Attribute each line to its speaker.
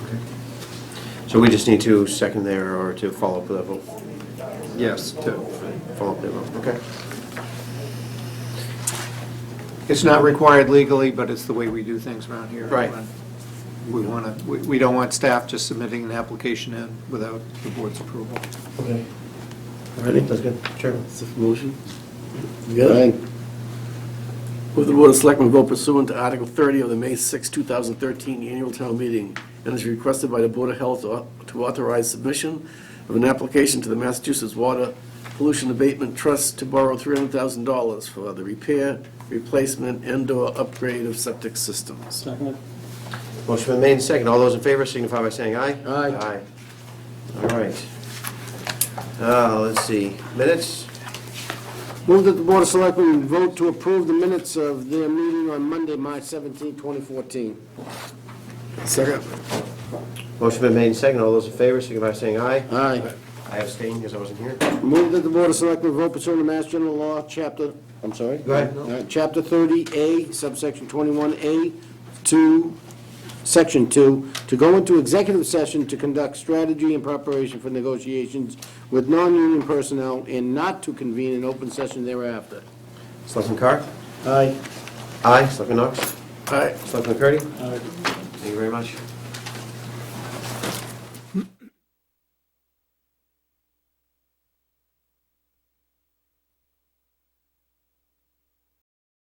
Speaker 1: So we just need to second there or to follow up with that vote?
Speaker 2: Yes, to,
Speaker 1: Follow up their vote, okay.
Speaker 2: it's not required legally, but it's the way we do things around here.
Speaker 1: Right.
Speaker 2: We want to, we we don't want staff just submitting an application in without the board's approval.
Speaker 3: Okay,
Speaker 1: Ready? That's good. Sure.
Speaker 3: it's a motion. You got it? Move the Board of Selectmen vote pursuant to Article 30 of the May 6, 2013 Annual Town Meeting, and is requested by the Board of Health au- to authorize submission of an application to the Massachusetts Water Pollution Abatement Trust to borrow $300,000 for the repair, replacement, and/or upgrade of septic systems.
Speaker 4: Second.
Speaker 1: Motion been made and seconded. All those in favor signify by saying aye.
Speaker 3: Aye.
Speaker 1: Aye. All right. Uh, let's see, minutes?
Speaker 5: Move that the Board of Selectmen vote to approve the minutes of their meeting on Monday, March 17, 2014.
Speaker 3: Second.
Speaker 1: Motion been made and seconded. All those in favor signify by saying aye.
Speaker 5: Aye.
Speaker 1: I abstain because I wasn't here.
Speaker 5: Move that the Board of Selectmen vote pursuant to Mass General Law, Chapter, I'm sorry?
Speaker 1: Go ahead.
Speaker 5: All right, Chapter 30A, subsection 21A, to, Section 2, to go into executive session to conduct strategy and preparation for negotiations with non-union personnel and not to convene an open session thereafter.
Speaker 1: Selectman Carr?
Speaker 5: Aye.
Speaker 1: Aye. Selectman Knox?
Speaker 3: All right,
Speaker 1: Selectman McCurdy? Thank you very much.